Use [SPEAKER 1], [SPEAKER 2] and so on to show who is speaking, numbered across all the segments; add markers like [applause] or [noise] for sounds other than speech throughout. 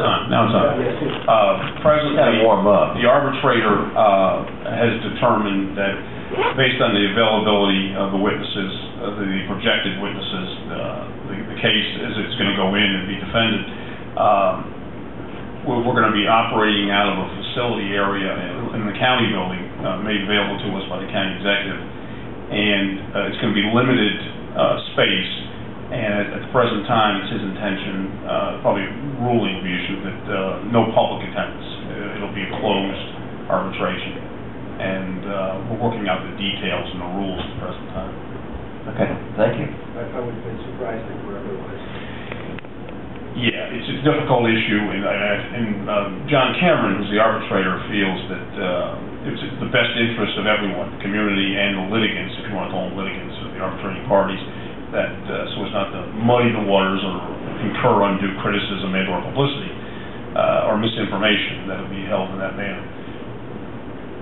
[SPEAKER 1] time's up. Uh, Presently,
[SPEAKER 2] warm up.
[SPEAKER 1] the arbitrator uh, has determined that, based on the availability of the witnesses, of the projected witnesses, uh, the the case as it's going to go in and be defended, um, we're we're going to be operating out of a facility area in- in the county building uh, made available to us by the county executive. And uh, it's going to be limited uh, space, and at- at the present time, it's his intention, uh, probably ruling will be issued, that uh, no public attendance. Uh, It'll be a closed arbitration. And uh, we're working out the details and the rules at the present time.
[SPEAKER 2] Okay, thank you.
[SPEAKER 3] I I would have been surprised if wherever it was.
[SPEAKER 1] Yeah, it's a difficult issue, and, I- I- and um, John Cameron, who's the arbitrator, feels that uh, it's in the best interest of everyone, the community and the litigants, if you want to call them litigants, or the arbitrating parties, that, uh, so as not to muddy the waters or incur undue criticism and/or publicity uh, or misinformation that would be held in that manner.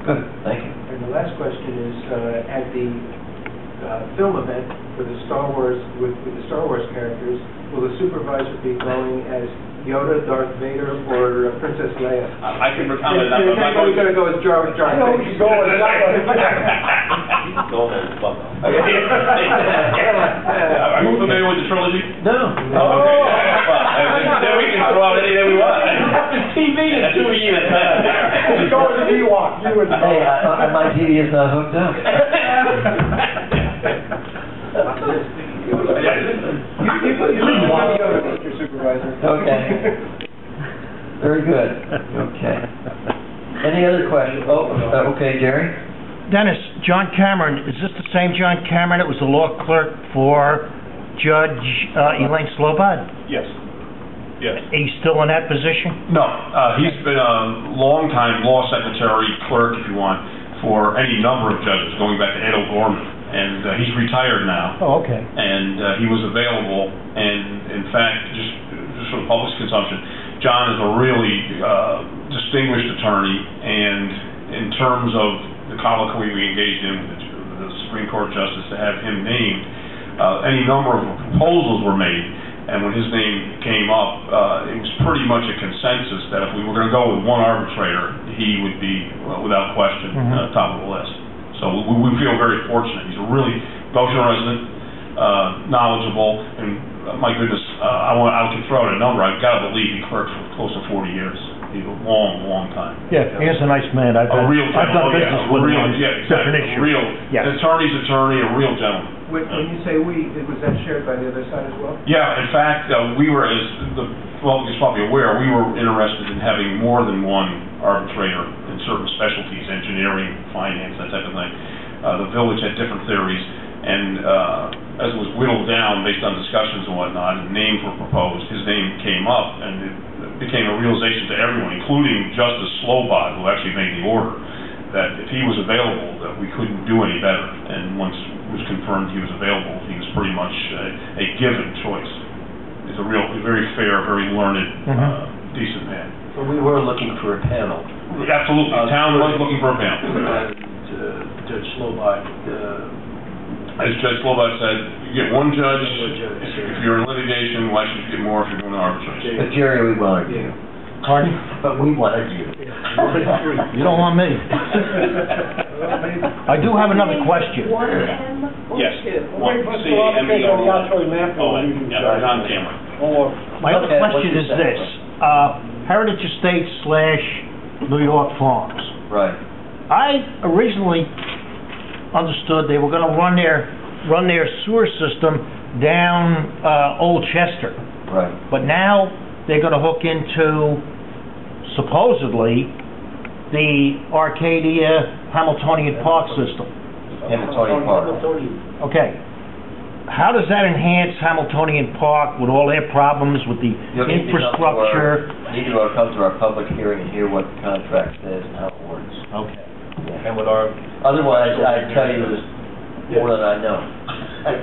[SPEAKER 2] Good, thank you.
[SPEAKER 3] And the last question is, uh, at the uh, film event for the Star Wars, with with the Star Wars characters, will the supervisor be going as Yoda, Darth Vader, or uh, Princess Leia?
[SPEAKER 1] I I can
[SPEAKER 3] Is-
[SPEAKER 1] comment on that, but
[SPEAKER 3] Is
[SPEAKER 1] I'm not
[SPEAKER 3] anybody
[SPEAKER 1] going to...
[SPEAKER 3] going to go as Jar Jar Binks?
[SPEAKER 1] [laughs]
[SPEAKER 3] [laughs]
[SPEAKER 1] Are you familiar with the trilogy?
[SPEAKER 2] No.
[SPEAKER 1] Oh, okay. Well, then we can throw out any that we want.
[SPEAKER 3] TV.
[SPEAKER 1] That's who we eat at time.
[SPEAKER 3] Go as an Ewok, you and
[SPEAKER 2] Hey, I, I, my TV is not hooked up.
[SPEAKER 3] You you put your Yoda, Mr. Supervisor.
[SPEAKER 2] Okay. Very good, okay. Any other questions? Oh, uh, okay, Jerry?
[SPEAKER 4] Dennis, John Cameron, is this the same John Cameron that was the law clerk for Judge uh, Elaine Slobod?
[SPEAKER 1] Yes. Yes.
[SPEAKER 4] He's still in that position?
[SPEAKER 1] No, uh, he's been a longtime law secretary, clerk, if you want, for any number of judges, going back to Ed O'Gorman. And uh, he's retired now.
[SPEAKER 4] Oh, okay.
[SPEAKER 1] and uh, he was available. And in fact, just, just for the public's consumption, John is a really uh, distinguished attorney, and in terms of the colloquy we engaged in with the- the Supreme Court justice to have him named, uh, any number of proposals were made. And when his name came up, uh, it was pretty much a consensus that if we were going to go with one arbitrator, he would be, well, without question, uh,
[SPEAKER 4] Mhm.
[SPEAKER 1] top of the list. So we, we feel very fortunate. He's a really Goshen resident, uh, knowledgeable, and uh, my goodness, uh, I want, I can throw out a number, I've got to believe he clerked for close to 40 years, He's a long, long time.
[SPEAKER 4] Yeah, he is a nice man. I've
[SPEAKER 1] A
[SPEAKER 4] done
[SPEAKER 1] real
[SPEAKER 4] I've
[SPEAKER 1] gentleman, oh yeah,
[SPEAKER 4] done business
[SPEAKER 1] a
[SPEAKER 4] with him.
[SPEAKER 1] real,
[SPEAKER 4] on
[SPEAKER 1] yeah, exactly,
[SPEAKER 4] different
[SPEAKER 1] a
[SPEAKER 4] issues.
[SPEAKER 1] real,
[SPEAKER 4] Yes.
[SPEAKER 1] an attorney's attorney, a real gentleman.
[SPEAKER 3] When when you say "we," was that shared by the other side as well?
[SPEAKER 1] Yeah, in fact, uh, we were, as the public is probably aware, we were interested in having more than one arbitrator in certain specialties, engineering, finance, that type of thing. Uh, The village had different theories, and uh, as it was whittled down based on discussions and whatnot, and names were proposed, his name came up, and it became a realization to everyone, including Justice Slobod, who actually made the order, that if he was available, that we couldn't do any better. And once it was confirmed he was available, he was pretty much a, a given choice. He's a real, a very fair, very learned, uh,
[SPEAKER 4] Mhm.
[SPEAKER 1] decent man.
[SPEAKER 5] So we were looking for a panel.
[SPEAKER 1] Absolutely, the town was looking for a panel.
[SPEAKER 5] And uh, Judge Slobod, uh,
[SPEAKER 1] As Judge Slobod said, you get one judge,
[SPEAKER 5] One judge.
[SPEAKER 1] if if you're in litigation, why should you get more if you're doing arbitration?
[SPEAKER 2] But Jerry, we wanted you.
[SPEAKER 4] Pardon?
[SPEAKER 2] But we wanted
[SPEAKER 1] [laughs]
[SPEAKER 2] you.
[SPEAKER 4] You don't want me. I do have another question.
[SPEAKER 1] Yes. One C, M E R Y. Oh, yeah, it's on camera.
[SPEAKER 4] My other
[SPEAKER 2] Okay, what's
[SPEAKER 4] question
[SPEAKER 2] your
[SPEAKER 4] is
[SPEAKER 2] second
[SPEAKER 4] this. Uh, Heritage Estates slash New York Farms.
[SPEAKER 2] Right.
[SPEAKER 4] I originally understood they were gonna run their, run their sewer system down, uh, Old Chester.
[SPEAKER 2] Right.
[SPEAKER 4] But now, they're gonna hook into supposedly the Arcadia Hamiltonian Park system.
[SPEAKER 2] Hamiltonian Park.
[SPEAKER 4] Okay. How does that enhance Hamiltonian Park with all their problems with the
[SPEAKER 2] You'll need to come to our-
[SPEAKER 4] infrastructure?
[SPEAKER 2] Need to go come to our public hearing and hear what the contract says and how it works.
[SPEAKER 4] Okay.
[SPEAKER 5] and with our,
[SPEAKER 2] Otherwise, I'd tell you this more than I know.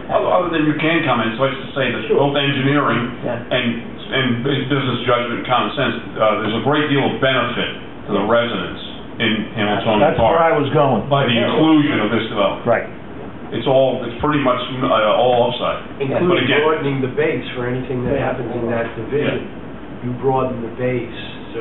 [SPEAKER 1] Other other than you can comment, so it's to say that both engineering
[SPEAKER 2] Yeah.
[SPEAKER 1] and, and business judgment and common sense, uh, there's a great deal of benefit to the residents in Hamiltonian
[SPEAKER 4] That's where
[SPEAKER 1] Park
[SPEAKER 4] I was going.
[SPEAKER 1] by the inclusion of this development.
[SPEAKER 4] Right.
[SPEAKER 1] It's all, it's pretty much uh, all upside. But
[SPEAKER 3] Including
[SPEAKER 1] again-
[SPEAKER 3] broadening the base for anything that happens in that division. You broaden the base